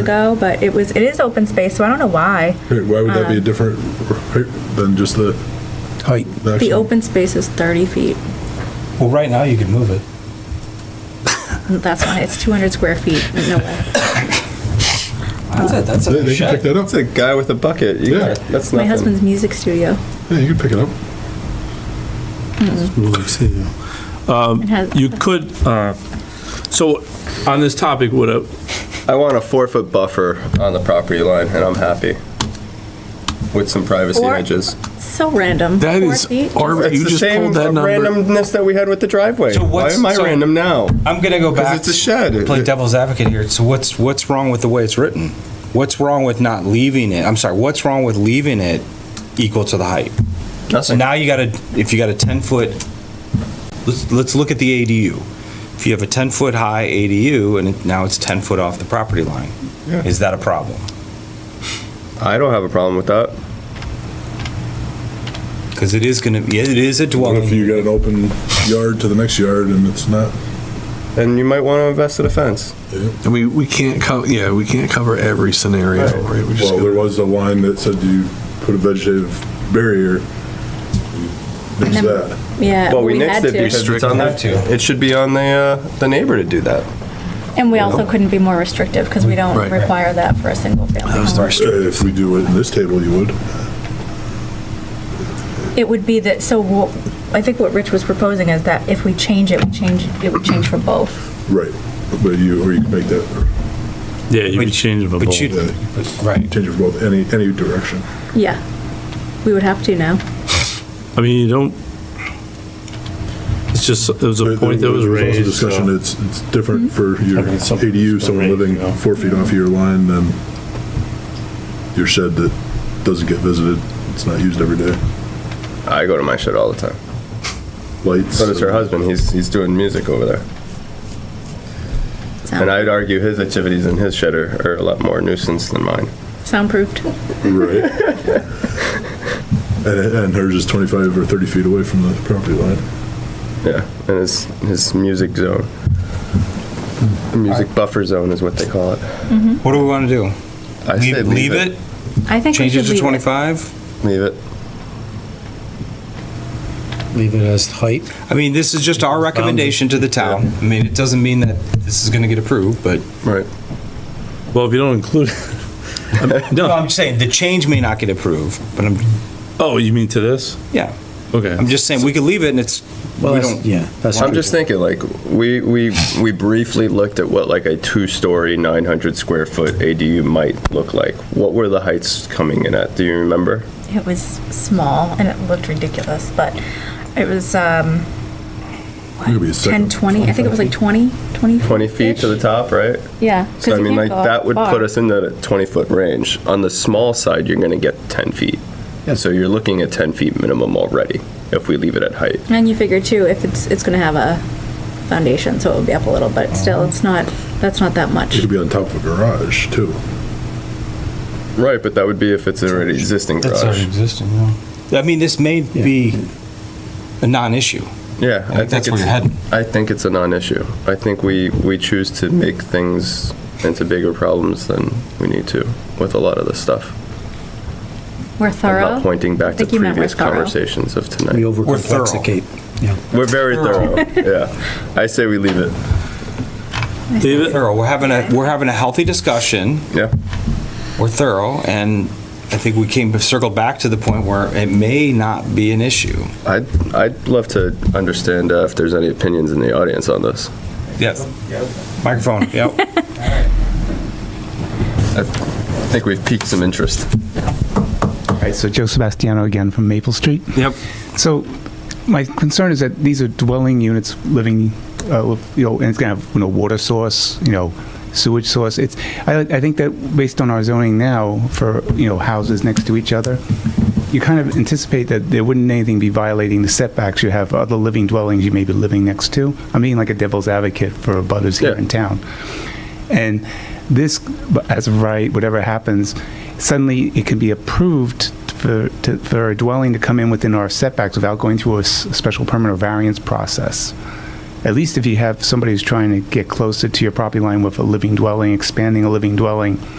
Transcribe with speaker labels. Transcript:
Speaker 1: ago, but it was, it is open space, so I don't know why.
Speaker 2: Hey, Why would
Speaker 1: Um,
Speaker 2: that be a different rate than just the
Speaker 3: Height.
Speaker 2: the
Speaker 1: The
Speaker 2: actual?
Speaker 1: open space is 30 feet.
Speaker 3: Well, right now you could move it.
Speaker 1: That's why it's 200 square feet. No way.
Speaker 3: That's it. That's
Speaker 2: They
Speaker 3: a
Speaker 2: they can pick
Speaker 3: shed.
Speaker 2: that up.
Speaker 4: That's a guy with a bucket. You
Speaker 2: Yeah.
Speaker 4: yeah. That's
Speaker 1: My
Speaker 4: nothing.
Speaker 1: husband's music studio.
Speaker 2: Yeah, you can pick it up.
Speaker 1: It has-
Speaker 5: You could, uh, so on this topic, would a,
Speaker 4: I want a four foot buffer on the property line, and I'm happy with some privacy
Speaker 1: Or-
Speaker 4: edges.
Speaker 1: So random.
Speaker 6: That
Speaker 1: Four
Speaker 6: is
Speaker 1: feet?
Speaker 6: ar-
Speaker 4: It's
Speaker 6: You
Speaker 4: the
Speaker 6: just
Speaker 4: same
Speaker 6: pulled that number.
Speaker 4: randomness that we had with the driveway.
Speaker 3: So
Speaker 4: Why
Speaker 3: what's-
Speaker 4: am I
Speaker 3: so-
Speaker 4: random now?
Speaker 3: I'm gonna go
Speaker 4: 'Cause
Speaker 3: back.
Speaker 4: it's a shed.
Speaker 3: Play
Speaker 4: It-
Speaker 3: devil's advocate here. So what's what's wrong with the way it's written? What's wrong with not leaving it? I'm sorry. What's wrong with leaving it equal to the height? So
Speaker 4: Nothing.
Speaker 3: now you got a if you got a 10 foot. Let's let's look at the ADU. If you have a 10 foot high ADU and it, now it's 10 foot off the property line,
Speaker 4: Yeah.
Speaker 3: is that a problem?
Speaker 4: I don't have a problem with that.
Speaker 3: Because it is gonna be it is a
Speaker 2: What
Speaker 3: dwelling.
Speaker 2: if you got an open yard to the next yard and it's not?
Speaker 4: And you might want to invest in a
Speaker 1: Uh,
Speaker 4: fence.
Speaker 6: I mean, we can't cover, yeah, we can't cover every scenario, Oh, right? We just
Speaker 2: Well, there
Speaker 6: gotta-
Speaker 2: was a line that said you put a vegetative barrier. There's
Speaker 1: And then-
Speaker 2: that.
Speaker 1: Yeah.
Speaker 4: well, we, nixed
Speaker 1: had to.
Speaker 4: it because it's
Speaker 6: Restrict-
Speaker 4: on the,
Speaker 3: Have to.
Speaker 4: It should be on the uh, the neighbor to do that.
Speaker 1: And we also couldn't be more restrictive because we don't
Speaker 6: Right.
Speaker 1: require that for a single family home.
Speaker 2: If we do it in this table, you would.
Speaker 1: It would be that, so wha- I think what Rich was proposing is that if we change it, we change, it would change for both.
Speaker 2: Right. But you, or you can make that,
Speaker 5: yeah, you could
Speaker 3: But-
Speaker 5: change it.
Speaker 3: But you
Speaker 2: uh,
Speaker 3: right.
Speaker 2: change it for both, any, any direction.
Speaker 1: Yeah. We would have to now.
Speaker 5: I mean, you don't, it's just, it was a
Speaker 2: There-
Speaker 5: point that
Speaker 2: there
Speaker 5: was
Speaker 2: also
Speaker 5: raised.
Speaker 2: Discussion,
Speaker 5: so-
Speaker 2: it's, it's different for your
Speaker 5: Different, something
Speaker 2: ADU,
Speaker 5: that's been
Speaker 2: someone
Speaker 5: raised,
Speaker 2: living
Speaker 5: you know.
Speaker 2: four feet off of your line than your shed that doesn't get visited, it's not used every day,
Speaker 4: I go to my shed all the time.
Speaker 2: lights.
Speaker 4: So does her husband. He's he's doing music over there. And
Speaker 1: Sound-
Speaker 4: I'd argue his activities in his shed are, are a lot more nuisance than mine.
Speaker 1: Soundproofed.
Speaker 2: Right. And, and hers is twenty-five or thirty feet away from the property line.
Speaker 4: Yeah, and his his music zone, the music buffer zone is what they call it.
Speaker 3: What do we want to do?
Speaker 4: I
Speaker 3: leave,
Speaker 4: say
Speaker 3: leave it.
Speaker 1: I think we
Speaker 3: Change it
Speaker 1: should
Speaker 3: to
Speaker 1: leave it.
Speaker 3: 25?
Speaker 4: Leave it.
Speaker 7: Leave it as height.
Speaker 3: I mean, this is just our recommendation to the town. I mean, it doesn't mean that this is going to get approved, but.
Speaker 4: Right.
Speaker 5: Well, if you don't include, I mean,
Speaker 3: No,
Speaker 5: no,
Speaker 3: I'm just saying, the change may not get approved, but I'm,
Speaker 5: oh, you mean to this?
Speaker 3: yeah.
Speaker 5: Okay.
Speaker 3: I'm just saying, we could leave it and it's, we
Speaker 7: Well, that's-
Speaker 3: don't,
Speaker 7: yeah. that's
Speaker 4: I'm just thinking, like, we, we, we briefly looked at what like a two-story, 900 square foot ADU might look like. What were the heights coming in at? Do you remember?
Speaker 1: It was small and it looked ridiculous, but it was um,
Speaker 2: It could be a
Speaker 1: 10,
Speaker 2: second-
Speaker 1: 20, I think it was like 20, 20.
Speaker 4: 20 feet to the
Speaker 1: -ish.
Speaker 4: top, right?
Speaker 1: Yeah. 'cause
Speaker 4: So I
Speaker 1: you
Speaker 4: mean,
Speaker 1: can't
Speaker 4: like,
Speaker 1: go
Speaker 4: that would put
Speaker 1: far.
Speaker 4: us in the 20-foot range. On the small side, you're gonna get 10 feet. So you're looking at 10 feet minimum already, if we leave it at height.
Speaker 1: And you figure too, if it's, it's going to have a foundation, so it would be up a little, but still, it's not, that's not that
Speaker 2: It
Speaker 1: much.
Speaker 2: could be on top of a garage too.
Speaker 4: Right, but that would be if it's already existing
Speaker 3: That's already
Speaker 4: garage.
Speaker 3: existing, yeah. I mean, this may be a non-issue.
Speaker 4: Yeah.
Speaker 3: I think that's
Speaker 4: it's-
Speaker 3: where you're heading.
Speaker 4: I think it's a non-issue. I think we, we choose to make things into bigger problems than we need to with a lot of this stuff.
Speaker 1: We're
Speaker 4: I'm
Speaker 1: thorough.
Speaker 4: not pointing
Speaker 1: I
Speaker 4: back to
Speaker 1: think you meant we're
Speaker 4: previous
Speaker 1: thorough.
Speaker 4: conversations of
Speaker 7: We
Speaker 4: tonight.
Speaker 7: overcomplicate. Yeah.
Speaker 4: We're very
Speaker 3: Thorough.
Speaker 4: thorough, yeah. I say we leave it,
Speaker 5: Leave it?
Speaker 3: Thorough, we're having a, we're having a healthy discussion.
Speaker 4: yeah.
Speaker 3: We're thorough and I think we came, circled back to the point where it may not be an issue.
Speaker 4: I'd, I'd love to understand uh, if there's any opinions in the audience on this.
Speaker 3: Yes. Microphone, yep.
Speaker 4: I think we've piqued some interest.
Speaker 8: Right, so Joe Sebastiano again from Maple Street.
Speaker 3: Yep.
Speaker 8: So my concern is that these are dwelling units living, uh, with, you know, and it's gonna have, you know, water source, you know, sewage source. It's, I, I think that based on our zoning now for, you know, houses next to each other, you kind of anticipate that there wouldn't anything be violating the setbacks you have, other living dwellings you may be living next to. I'm being like a devil's advocate for butters here
Speaker 4: Yeah.
Speaker 8: in town. And this, as of right, whatever happens, suddenly it can be approved for, to, for a dwelling to come in within our setbacks without going through a s- special permit or variance process. at least if you have somebody who's trying to get closer to your property line with a living dwelling, expanding a living dwelling,